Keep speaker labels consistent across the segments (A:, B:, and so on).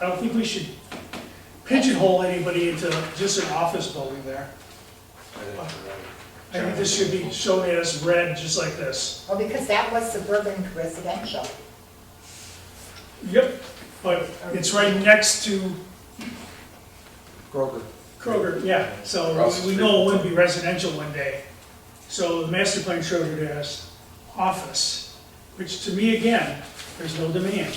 A: I don't think we should pigeonhole anybody into just an office building there. I think this should be shown as red, just like this.
B: Well, because that was suburban residential.
A: Yep. But it's right next to
C: Kroger.
A: Kroger, yeah, so
C: Across the
A: we
C: street.
A: know it would be residential one day. So the master plan showed it as office, which to me, again, there's no demand.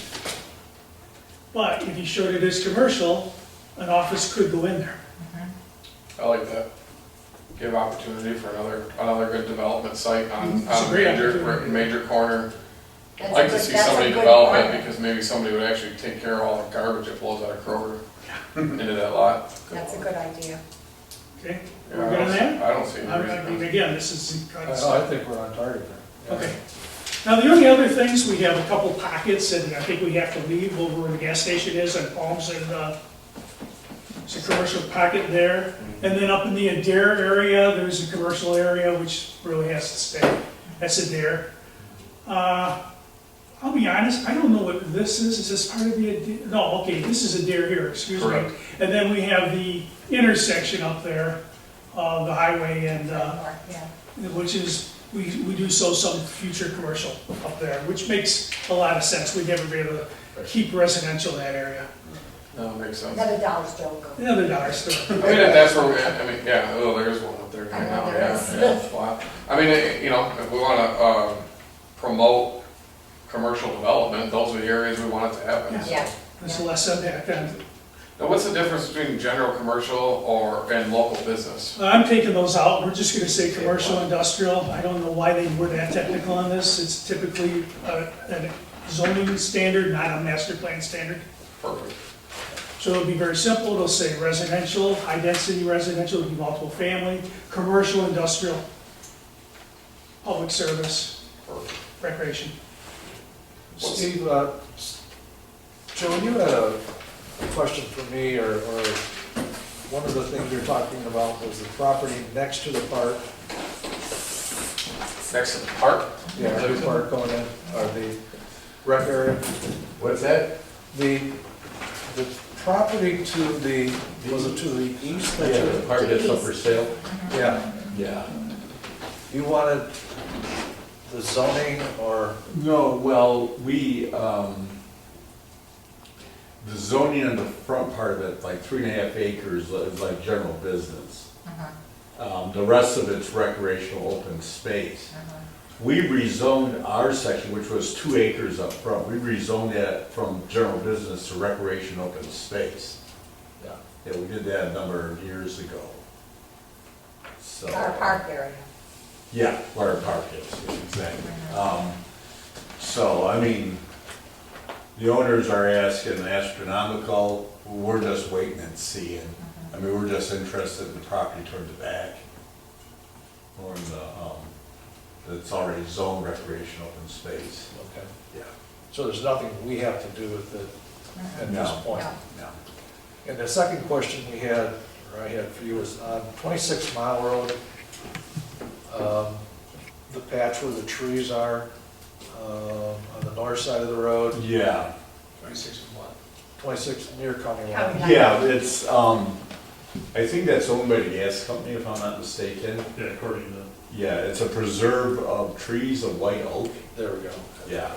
A: But if he showed it as commercial, an office could go in there.
D: I like that. Give opportunity for another, another good development site on,
A: Mm-hmm. It's a
D: on
A: great
D: major,
A: opportunity.
D: major corner.
B: That's
D: I'd
B: a
D: like to
B: good-
D: see
B: that's a
D: somebody
B: good
D: develop
B: point.
D: it, because maybe somebody would actually take care of all the garbage that blows out of Kroger into that lot.
B: That's a good idea.
A: Okay,
D: Yeah,
A: we're
D: I
A: good
D: don't
A: on
D: see-
A: that?
D: I don't see any
A: I'm- I mean,
D: reason.
A: again, this is.
C: I Oh, I think we're on target there.
A: Okay. Now, the only other things, we have a couple pockets, and I think we have to leave over where the gas station is on Palms and, uh, it's a commercial pocket there. And then up in the Adair area, there's a commercial area which really has to stay. That's Adair. Uh, I'll be honest, I don't know what this is. Is this part of the Adair? No, okay, this is Adair here, excuse me.
D: Correct.
A: And then we have the intersection up there of the highway and, uh,
B: Yeah.
A: which is, we, we do so some future commercial up there, which makes a lot of sense. We'd never be able to keep residential in that area.
D: No, it makes sense. I
B: Another dollar store. go.
A: Another dollar store.
D: mean, if that's where, we- I mean, yeah, oh, there is one up there
B: I know
D: now,
B: Oh, there
D: yeah,
B: is.
D: yeah, it's flat. I mean, eh, you know, if we wanna, uh, promote commercial development, those are the areas we want it to happen, so.
B: Yeah,
A: There's less impact on,
D: Now, what's the difference between general commercial or, and local business?
A: I'm taking those out. We're just gonna say commercial, industrial. I don't know why they were that technical on this. It's typically uh, a zoning standard, not a master plan standard.
D: Perfect.
A: So it'll be very simple. It'll say residential, high-density residential, it'll be multiple family, commercial, industrial, public service.
D: Perfect.
A: recreation.
C: Steve, uh, s- Joe, you had a question for me, or, or one of the things you're talking about was the property next to the park.
D: Next to the park?
C: Yeah, the park going in, or the rec area.
D: What's that?
C: The, the property to the, was it to the east? that you-
E: Part that's up for sale?
C: Yeah,
E: Yeah.
C: you wanted the zoning or,
E: No, well, we, um, the zoning on the front part of it, like three and a half acres, uh, is like general business. Um, the rest of it's recreational open space.
B: Uh-huh.
E: We rezoned our section, which was two acres up front, we rezoned that from general business to recreation open space. Yeah, Yeah, we did that a number of years ago. So.
B: our park area.
E: Yeah, where our park is, exactly. Um, So, I mean, the owners are asking astronomical, we're just waiting and seeing. I mean, we're just interested in the property toward the back. Or in the, um, that's already zoned recreation open space.
C: okay,
E: Yeah.
C: so there's nothing we have to do with it
B: Uh-huh.
C: at this
E: No.
C: point?
B: No.
E: No.
C: And the second question we had, or I had for you, was on 26 Mile Road, um, the patch where the trees are um, on the north side of the road,
E: Yeah,
C: 26 near County
B: County
C: Line.
B: Line.
E: yeah, it's, um, I think that's owned by the gas company, if I'm not mistaken.
F: Yeah, according to,
E: Yeah, it's a preserve of trees of white oak.
C: There we go.
E: Yeah.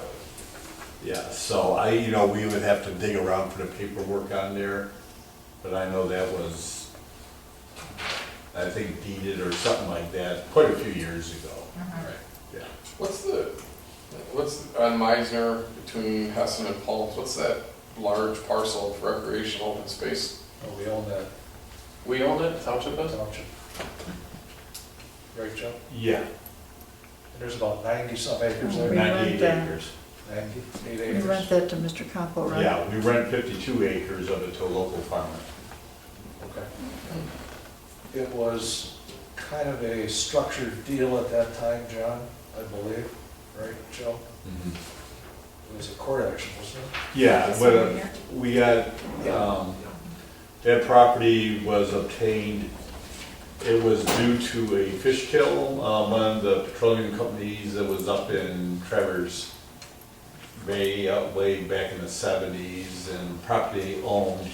E: Yeah, so I, you know, we would have to dig around for the paperwork on there, but I know that was, I think deeded or something like that, quite a few years ago.
B: Uh-huh.
E: Yeah.
D: What's the, what's on Meisner between Hessen and Palms, what's that large parcel of recreational open space?
C: Oh, We own that
D: We own it, township does?
C: township. Right, Joe?
E: Yeah,
C: And there's about 90-some acres there,
E: ninety-eight acres.
C: 98
G: Mm-hmm. We rent
C: acres.
G: that to Mr. Compo, right?
E: Yeah, we rent fifty-two acres of it to a local farmer.
C: Okay. It was kind of a structured deal at that time, John, I believe, right, Joe? It was a court action, wasn't it?
E: Yeah,
B: This one
E: but uh,
B: here?
E: we got, um, that property was obtained, it was due to a fish um, kill, uh, one of the petroleum companies that was up in Trevor's way, uh, way back in the seventies and property owned